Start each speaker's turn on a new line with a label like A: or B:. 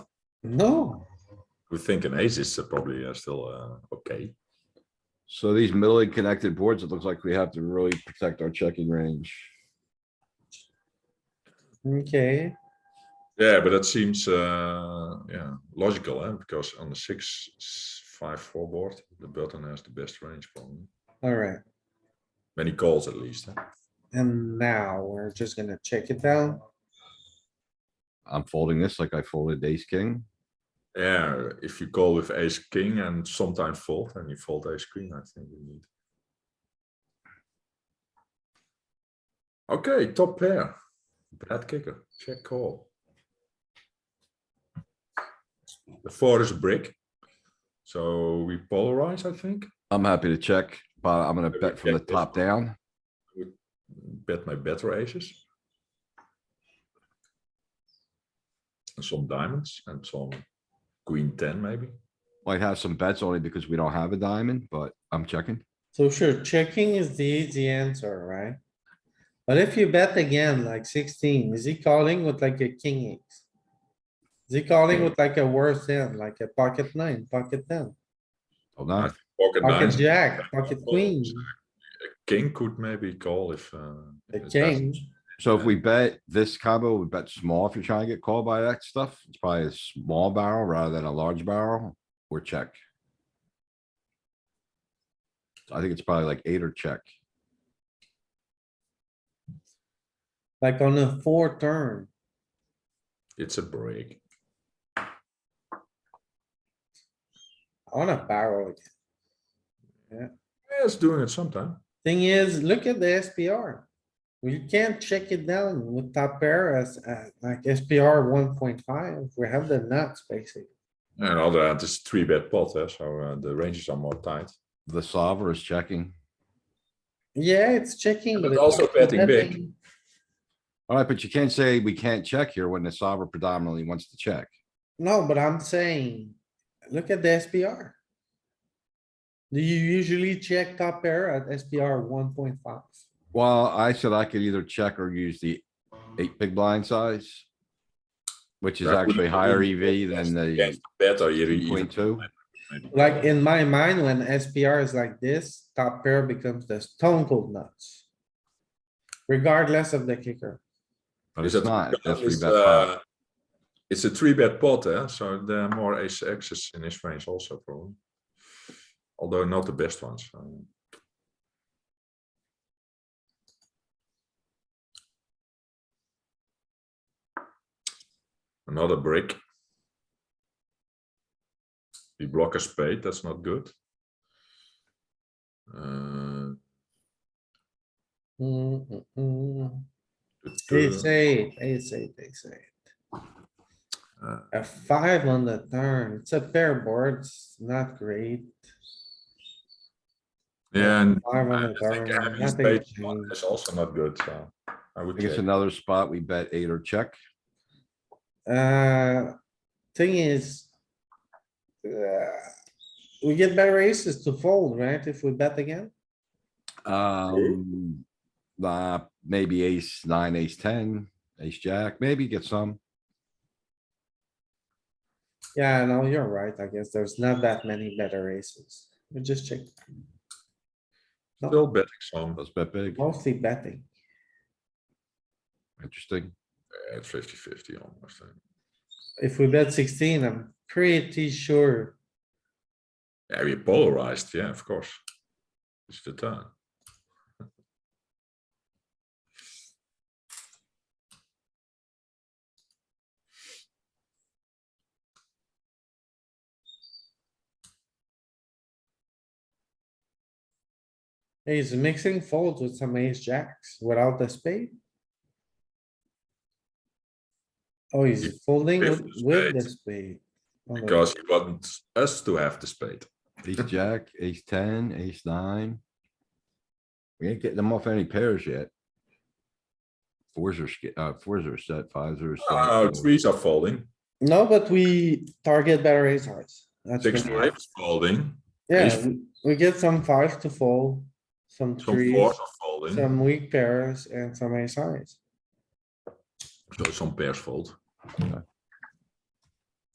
A: No,
B: We think an ace is uh, probably uh, still uh, okay.
C: So these middling connected boards, it looks like we have to really protect our checking range.
A: okay,
B: Yeah, but that seems uh, yeah logical, eh? because on the six s- five four board, the button has the best range probably.
A: alright.
B: Many calls at least. eh?
A: And now we're just gonna check it down.
C: I'm folding this like I folded ace king.
B: Yeah, if you call with ace king and sometimes fold, and you fold ace queen, I think you need. Okay, top pair, bad kicker, check call. The four is a brick, so we polarize, I think.
C: I'm happy to check, but I'm gonna
B: Maybe
C: bet from the
B: check this
C: top
B: one.
C: down.
B: bet my better aces. And some diamonds and some queen ten maybe.
C: Might have some bets only because we don't have a diamond, but I'm checking.
A: So sure, checking is the easy answer, right? But if you bet again, like sixteen, is he calling with like a king X? Is he calling with like a worse end, like a pocket nine, pocket ten,
C: Hold on.
B: Pocket
A: pocket
B: nines,
A: jack, pocket queen,
B: king could maybe call if. uh,
A: the king?
B: it doesn't.
C: So if we bet this combo, we bet small if you're trying to get called by that stuff. It's probably a small barrel rather than a large barrel or check. I think it's probably like eight or check.
A: Like on a four turn,
B: It's a break.
A: on a barrel. again.
B: Yeah, it's doing it sometime.
A: Thing is, look at the SPR. We can't check it down with top pair as, uh, like SPR one point five. We have the nuts basically.
B: And on the other hand, it's three bet pot, eh, so uh, the ranges are more tight.
C: The solver is checking.
A: Yeah, it's checking.
B: But
A: it's
B: also betting big.
C: Alright, but you can't say we can't check here when the solver predominantly wants to check.
A: No, but I'm saying, look at the SPR. Do you usually check top pair at SPR one point five?
C: Well, I said I could either check or use the eight big blind size. Which is
B: That would
C: actually
B: be
C: higher EV
B: against-
C: than the
B: against Better, you even.
C: point two.
A: Like in my mind, when SPR is like this, top pair becomes the stone cold nuts. Regardless of the kicker.
C: But
B: Is
C: it's
B: that-
C: not, that's three
B: it's,
C: bet pot.
B: uh, It's a three bet pot, eh? so there are more ace X's in his range also probably. Although not the best ones. um, Another brick. We block a spade, that's not good. Uh,
A: Mm, mm, mm.
B: the
A: Ace
B: turn,
A: eight, ace eight, ace eight.
B: uh,
A: A five on the turn. It's a pair board. It's not great.
B: Yeah, and
A: Five on
B: I
A: the
B: think
A: turn,
B: having
A: nothing
B: spade
A: changed.
B: It's also not good, so I
C: I
B: would
C: think it's
B: check.
C: another spot we bet eight or check.
A: Uh, thing is. uh, We get better aces to fold, right? If we bet again,
C: Um, nah, maybe ace nine, ace ten, ace jack, maybe get some.
A: yeah, no, you're right. I guess there's not that many better aces. We just check,
B: Still betting some
C: Let's bet big.
A: mostly betting.
C: Interesting.
B: at 50 50 almost. eh.
A: If we bet sixteen, I'm pretty sure.
B: Yeah, we polarized. Yeah, of course. It's the turn.
A: He's mixing folds with some ace jacks without the spade. Oh, he's folding
B: with
A: with,
B: the
A: with the
B: spade.
A: spade. Oh, no.
B: Because he wants us to have the spade.
C: Ace jack, ace ten, ace nine. We ain't getting them off any pairs yet. Fours are, sk- uh, fours are set, fives are. set,
B: Oh,
C: so-
B: threes are folding.
A: No, but we target better ace hearts. That's
B: Six
A: good.
B: five is folding.
A: Yeah,
B: Ace-
A: we- we get some fives to fold, some
B: Some
A: threes,
B: fours are folding.
A: some weak pairs and some ace highs.
B: So some pairs fold.
C: Okay.